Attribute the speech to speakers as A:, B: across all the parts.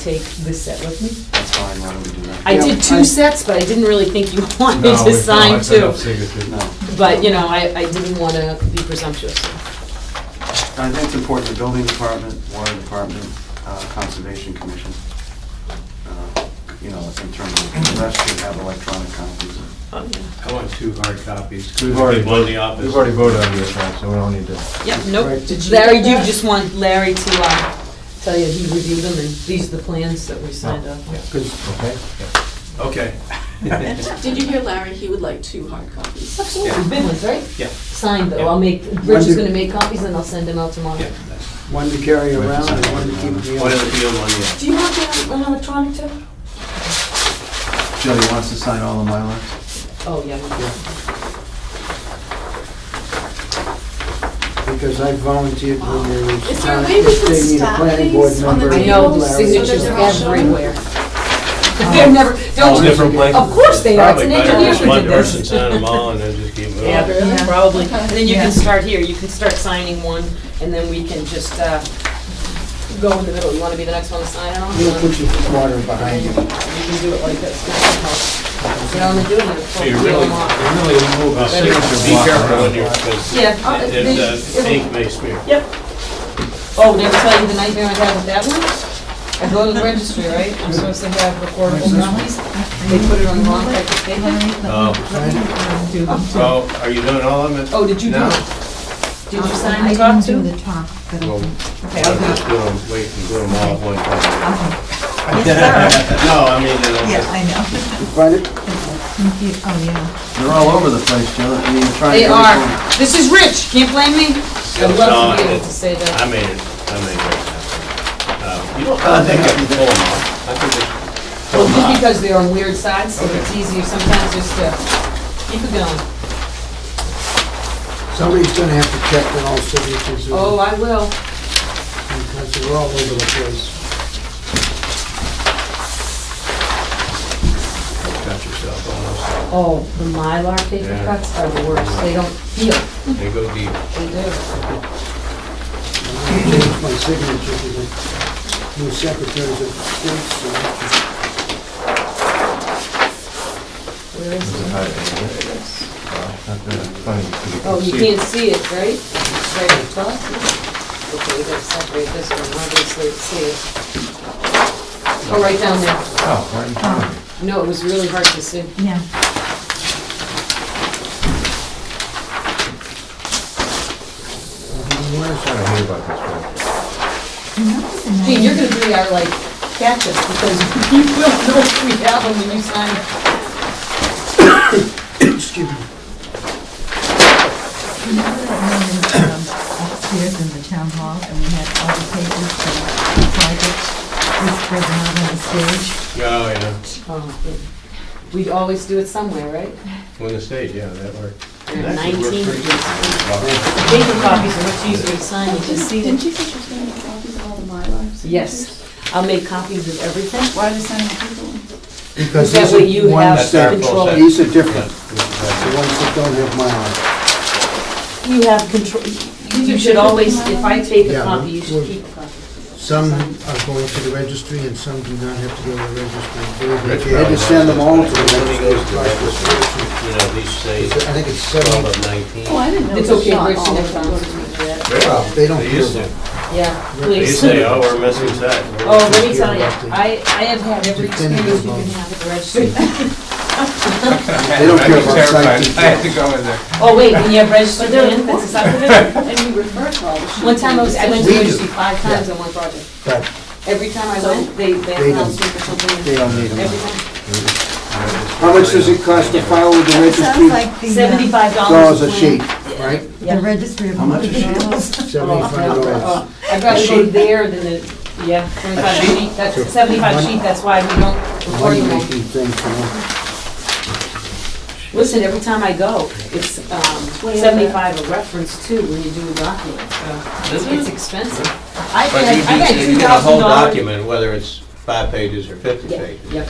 A: take this set with me?
B: That's fine, why don't we do that?
A: I
C: Yeah,
A: did
C: I-
A: two sets, but I didn't really think you wanted
D: No,
A: to
D: it's not.
A: sign
D: I've had
A: two.
D: enough signatures.
B: No, Uh,
A: But, you know, I, I didn't want to be presumptuous.
B: I think it's important, the building department, water department, uh, conservation commission. uh, You know, in terms of, the rest should have electronic copies.
A: Oh, yeah.
D: I want two hard copies.
E: We've already
D: One in the
E: We've
D: office.
E: already voted on this one, so we don't need to.
A: Yep, nope.
C: Right, did you
A: Larry,
C: get
A: you
C: that?
A: just want Larry to, uh, tell you he reviewed them and these are the plans that we signed up on.
D: Good.
E: Okay.
D: Okay.
F: Did you hear Larry? He would like two hard copies.
A: Absolutely, big ones, right?
D: Yeah.
A: Signed though,
D: Yeah.
A: I'll make, Rich is
C: do-
A: gonna make copies and I'll send them out tomorrow.
D: Yeah.
C: One to carry around and one to keep in the
D: One in
C: office.
D: the field, one in the.
F: Do you want that on electronic too?
B: Joe, you want us to sign all the Mylars?
A: Oh, yeah.
C: Because I volunteered when there was.
F: Is there a
C: times
F: way we
C: that
F: can
C: they need a
F: stack
C: planning
F: these
C: board
F: on
C: member
F: the
A: I
C: and
A: know, the
C: Larry.
A: signatures
F: they're all shown?
A: everywhere. They're never,
D: All
A: don't,
D: different places.
A: Of course they are. It's an
D: Probably better
A: engineer
D: just
A: who
D: One
A: did this.
D: person sign them all and then just keep moving.
A: yeah, yeah, probably. And then you
F: Yeah.
A: can start here, you can start signing one and then we can just, uh, go in the middle. You wanna be the next one to sign it on?
C: You'll put your water behind you.
A: You can do it like this. You know, I'm doing it.
D: So you really, you really move a signature Be careful when you're, because
A: Yeah, I'll-
D: if the
A: they-
D: ink may smear.
A: Yep. Oh, did I tell you the nightmare I had with that one? I go to the registry, right? I'm supposed to have recordable copies. They put it on the wrong type of paper.
D: Oh, so are you doing all of them?
A: Oh, did you do
D: No.
A: it? Did you sign the
G: I
A: top
G: didn't do
A: too?
G: the top, but I
D: Well,
G: can-
A: Okay, I'll do it.
D: Just do 'em- Wait and do them all at one time.
G: Yes, sir.
D: No, I mean, it'll
G: Yeah,
D: just-
G: I know.
C: Find it?
G: Confu- Oh, yeah.
B: They're all over the place, Joe, I mean, you're trying to...
A: They
B: get
A: are.
B: everyone-
A: This is Rich, can't blame me. I'd love to be able to say
D: I
A: that.
D: made it, I made it. Uh, You don't, I think I can pull them off. I think I
A: Well, just because they're on weird sides, so it's easier sometimes just to keep it going.
C: Somebody's gonna have to check that all signatures
A: Oh,
C: are,
A: I will.
C: because they're all over the place.
D: can cut yourself almost.
A: Oh, the Mylar paper
D: Yeah.
A: cuts are the worst. They don't feel.
D: They go deep. Oh,
A: They do.
C: I'm gonna change my signature to the new secretary of state, so
A: Where is it? Oh,
E: Oh,
A: you can't see it, right? It's right at the top? Okay, we gotta separate this one, obviously, to see it. Oh, right down there.
E: Oh, right in front of you.
A: No, it was really hard to see.
G: Yeah.
E: I don't hear about this
G: You know, it's a nice-
A: Gene, you're gonna be our, like, catch us, because you will know if we have them when you sign it.
C: Excuse me.
G: you know that room is, um, Upstairs in the town hall, and we had all the papers for the projects, which was not on the stage.
D: Oh, yeah,
A: Oh, good. We always do it somewhere, right?
D: when the stage, yeah, that worked.
A: There are
D: That should work
A: Nineteen.
D: pretty
A: Paper
D: good.
A: copies are much easier to sign, you just see
F: Didn't
A: them.
F: you say she was gonna make copies of all the Mylars?
A: Yes, I'll make copies of everything.
F: Why are they sending people?
C: Because
A: That
C: these
A: way
C: are
A: you
C: ones
A: have
D: That's our
C: that-
D: full
A: control.
D: set.
C: These are different,
D: Yeah.
C: the ones that don't have my
A: You have control, you should always, if I take a
C: Yeah,
A: copy, you should
C: we're-
A: keep a copy.
C: Some are going to the registry and some do not have to go to the registry.
D: Rich
C: If you had
D: probably
C: to send them all to
D: knows
C: the
D: that. When he
C: registry,
D: goes
C: it's
D: to the
C: like this.
D: You know, these say
C: I think it's
D: twelve
C: seven,
D: of nineteen.
F: Oh, I didn't know.
A: It's
F: it was
A: okay,
F: not
A: Rich,
F: all
A: never
F: of them.
A: comes to me for that.
C: Well, they don't
D: They used to,
A: Yeah,
D: they
A: please.
D: used to say, oh, we're missing that.
A: Oh, let me tell you, I, I have had every experience
C: Definitive
A: you can
C: vote.
A: have at the registry.
C: they don't care about
E: I had
C: site
E: to go in there.
A: Oh, wait, when you have registered
F: But they're
A: land, that's a subdivision?
F: And we refer to all the sheets.
A: One time I was, I went to
C: We do.
A: registry five times on one project.
C: but
A: Every time I went, they,
C: They
A: they
C: don't.
A: announced me for something,
C: they
A: and
C: don't need
A: every
C: them.
A: time.
C: How much does it cost to file with the
G: Sounds
C: registry?
G: like the, uh,
A: Seventy-five dollars
C: Dollars
A: a
C: a sheet,
A: plan.
C: right?
G: The registry of.
B: How much is it?
C: Seventy-five dollars.
A: I'd rather go there than the, yeah, seventy-five sheet, that's, seventy-five sheet, that's why we don't record them all.
C: Money-making thing, you know?
A: Listen, every time I go, it's um, seventy-five a reference too when you do a document, so it's expensive. I
D: But
A: had,
D: you
A: I
D: can,
A: had
D: you
A: two
D: get a
A: thousand
D: whole
A: dollars.
D: document, whether it's five pages or fifty
A: Yeah,
D: pages.
A: yeah.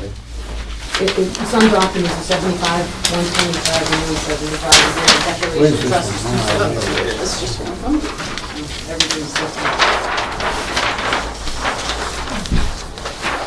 A: Some documents are seventy-five, one twenty-five, and then seventy-five, and then a
C: Where's
A: declaration of
B: Uh,
A: trust.
C: this one? Oh,
F: It's just one of them.
A: Everything's different.